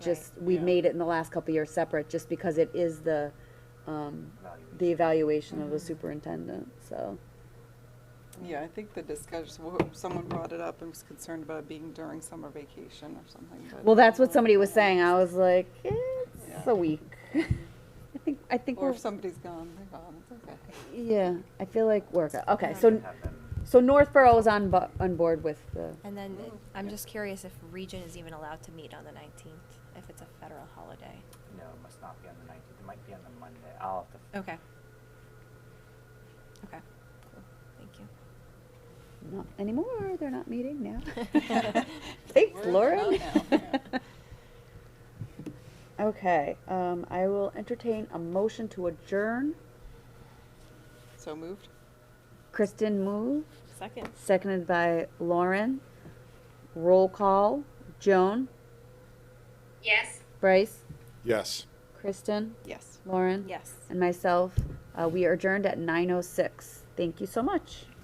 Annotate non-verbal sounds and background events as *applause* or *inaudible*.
just, we yeah. made it in the last couple of years separate, just because it is the, um, the evaluation of Mm-hmm. the superintendent, so. Yeah, I think the discussion, wh- someone brought it up and was concerned about it being during summer vacation or something. but- Well, that's what somebody was saying, I was like, it's Yeah. a week. *laughs* I think, I think Or we're, E if somebody's gone, they're gone, it's okay. yeah, I feel like we're, go- okay, Yeah. so, so Northborough is on bu- on board with the, And then, Mm. I'm Yeah. just curious if Region is even allowed to meet on the nineteenth, if it's a federal holiday. No, it must not be on the nineteenth, it might be on the Monday, I'll have to. Okay. Okay, cool, thank you. not anymore, they're not meeting *laughs* now. Thanks, We're Laura. done now, yeah. *laughs* Okay, um, I will entertain a motion to adjourn. So moved? Kristen moved, Second. seconded by Lauren. Roll call, Joan, Yes. Bryce, Yes. Kristen, Yes. Lauren, Yes. and myself. Uh, we are adjourned at 9.06. Thank you so much.